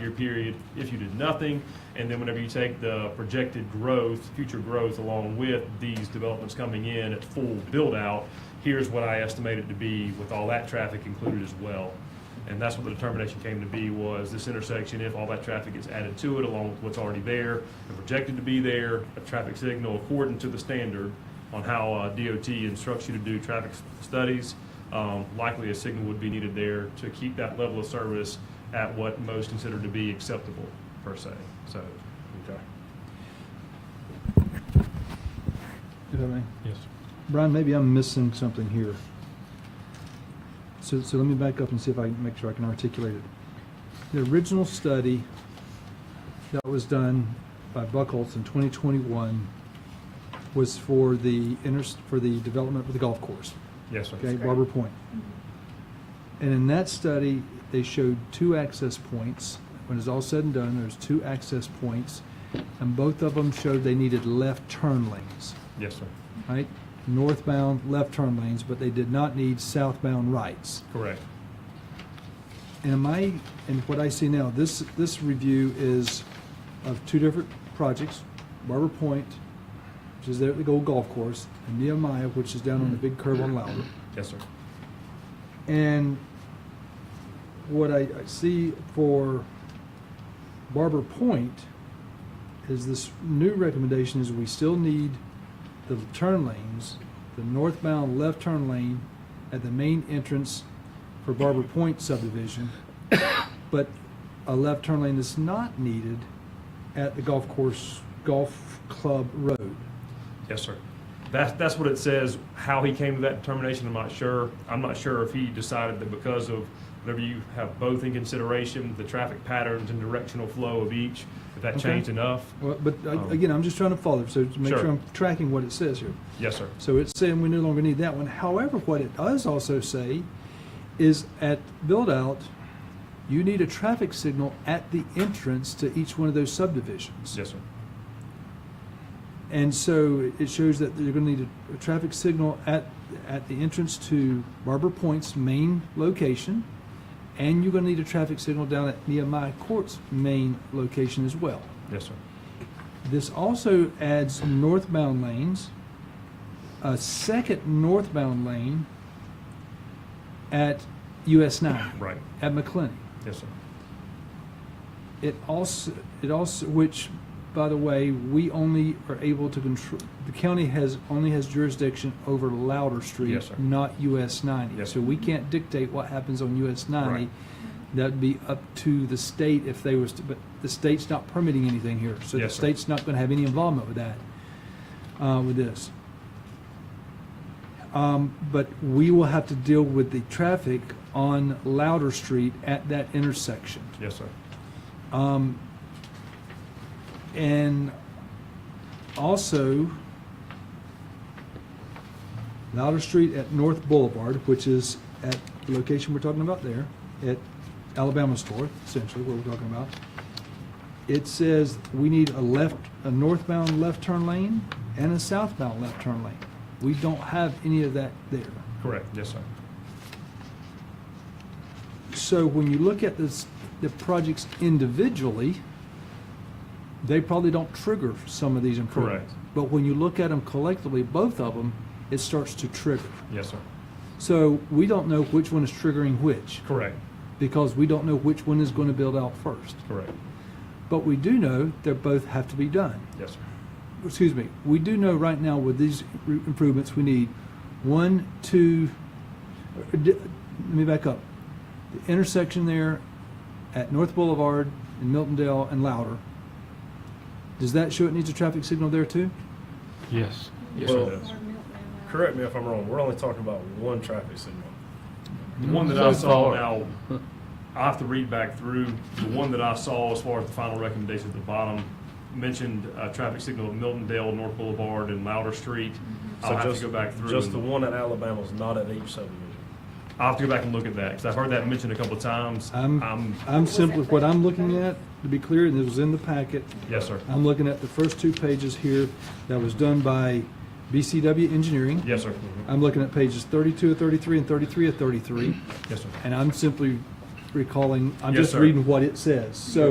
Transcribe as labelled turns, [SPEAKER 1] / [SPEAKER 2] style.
[SPEAKER 1] year period if you did nothing. And then whenever you take the projected growth, future growth along with these developments coming in at full build out, here's what I estimate it to be with all that traffic included as well. And that's what the determination came to be was this intersection, if all that traffic gets added to it along with what's already there and projected to be there, a traffic signal according to the standard on how uh, DOT instructs you to do traffic s- studies, um, likely a signal would be needed there to keep that level of service at what most consider to be acceptable per se, so. Okay.
[SPEAKER 2] If I may.
[SPEAKER 1] Yes.
[SPEAKER 2] Brian, maybe I'm missing something here. So, so let me back up and see if I can make sure I can articulate it. The original study that was done by Buckholz in 2021 was for the inter, for the development of the golf course,
[SPEAKER 1] Yes, sir.
[SPEAKER 2] okay, Barber Point. And in that study, they showed two access points. When it's all said and done, there's two access points, and both of them showed they needed left turn lanes
[SPEAKER 1] Yes, sir.
[SPEAKER 2] right? Northbound left turn lanes, but they did not need southbound rights.
[SPEAKER 1] Correct.
[SPEAKER 2] And am I, and what I see now, this, this review is of two different projects, Barber Point, which is there at the Gold Golf Course, and Nehemiah, which is down on the big curve on Louder.
[SPEAKER 1] Yes, sir.
[SPEAKER 2] And what I, I see for Barber Point is this new recommendation is we still need the turn lanes, the northbound left turn lane at the main entrance for Barber Point subdivision, but a left turn lane is not needed at the golf course, golf club road.
[SPEAKER 1] Yes, sir. That's, that's what it says. How he came to that determination, I'm not sure. I'm not sure if he decided that because of, whenever you have both in consideration, the traffic patterns and directional flow of each, if that
[SPEAKER 2] Okay.
[SPEAKER 1] changed enough.
[SPEAKER 2] Well, But uh,
[SPEAKER 1] Um,
[SPEAKER 2] again, I'm just trying to follow, so to make
[SPEAKER 1] Sure.
[SPEAKER 2] sure I'm tracking what it says here.
[SPEAKER 1] Yes, sir.
[SPEAKER 2] So it's saying we no longer need that one. However, what it does also say is at build out, you need a traffic signal at the entrance to each one of those subdivisions.
[SPEAKER 1] Yes, sir.
[SPEAKER 2] And so it shows that you're going to need a, a traffic signal at, at the entrance to Barber Point's main location, and you're going to need a traffic signal down at Nehemiah Court's main location as well.
[SPEAKER 1] Yes, sir.
[SPEAKER 2] This also adds northbound lanes, a second northbound lane at US 9,
[SPEAKER 1] Right.
[SPEAKER 2] at McClenny.
[SPEAKER 1] Yes, sir.
[SPEAKER 2] It also, it also, which, by the way, we only are able to control, the county has, only has jurisdiction over Louder Street.
[SPEAKER 1] Yes, sir.
[SPEAKER 2] Not US 90.
[SPEAKER 1] Yes,
[SPEAKER 2] So
[SPEAKER 1] sir.
[SPEAKER 2] we can't dictate what happens on US 90.
[SPEAKER 1] Right.
[SPEAKER 2] That'd be up to the state if they was, to- but the state's not permitting anything here. So the
[SPEAKER 1] Yes, sir.
[SPEAKER 2] state's not going to have any involvement with that. uh, with this. Um, But we will have to deal with the traffic on Louder Street at that intersection.
[SPEAKER 1] Yes, sir.
[SPEAKER 2] Um, And also, Louder Street at North Boulevard, which is at the location we're talking about there, at Alabama Store, essentially, what we're talking about. It says we need a left, a northbound left turn lane and a southbound left turn lane. We don't have any of that there.
[SPEAKER 1] Correct. Yes, sir.
[SPEAKER 2] So when you look at this, the projects individually, they probably don't trigger some of these improvements.
[SPEAKER 1] Correct.
[SPEAKER 2] But when you look at them collectively, both of them, it starts to trigger.
[SPEAKER 1] Yes, sir.
[SPEAKER 2] So we don't know which one is triggering which,
[SPEAKER 1] Correct.
[SPEAKER 2] because we don't know which one is going to build out first.
[SPEAKER 1] Correct.
[SPEAKER 2] But we do know they both have to be done.
[SPEAKER 1] Yes, sir.
[SPEAKER 2] Excuse me, we do know right now with these r- improvements, we need one, two, uh, d- let me back up. The intersection there at North Boulevard and Miltondale and Louder, does that show it needs a traffic signal there too?
[SPEAKER 3] Yes.
[SPEAKER 1] Yes, sir. it does.
[SPEAKER 4] Correct me if I'm wrong, we're only talking about one traffic signal.
[SPEAKER 1] The one that
[SPEAKER 3] So
[SPEAKER 1] I saw
[SPEAKER 3] far.
[SPEAKER 1] now, I have to read back through. The one that I saw as far as the final recommendation at the bottom mentioned uh, traffic signal at Miltondale, North Boulevard, and Louder Street. I'll
[SPEAKER 4] Mm-hmm. So
[SPEAKER 1] have
[SPEAKER 4] just-
[SPEAKER 1] to go back through.
[SPEAKER 4] Just
[SPEAKER 1] and-
[SPEAKER 4] the one at Alabama's not at each subdivision.
[SPEAKER 1] I'll have to go back and look at that because I've heard that mentioned a couple of times.
[SPEAKER 2] I'm,
[SPEAKER 1] I'm-
[SPEAKER 2] I'm simply, what I'm looking at, to be clear, and it was in the packet,
[SPEAKER 1] yes, sir.
[SPEAKER 2] I'm looking at the first two pages here that was done by BCW Engineering.
[SPEAKER 1] Yes, sir.
[SPEAKER 2] I'm looking at pages 32 of 33 and 33 of 33.
[SPEAKER 1] Yes, sir.
[SPEAKER 2] And I'm simply recalling, I'm
[SPEAKER 1] Yes,
[SPEAKER 2] just
[SPEAKER 1] sir.
[SPEAKER 2] reading what it says. So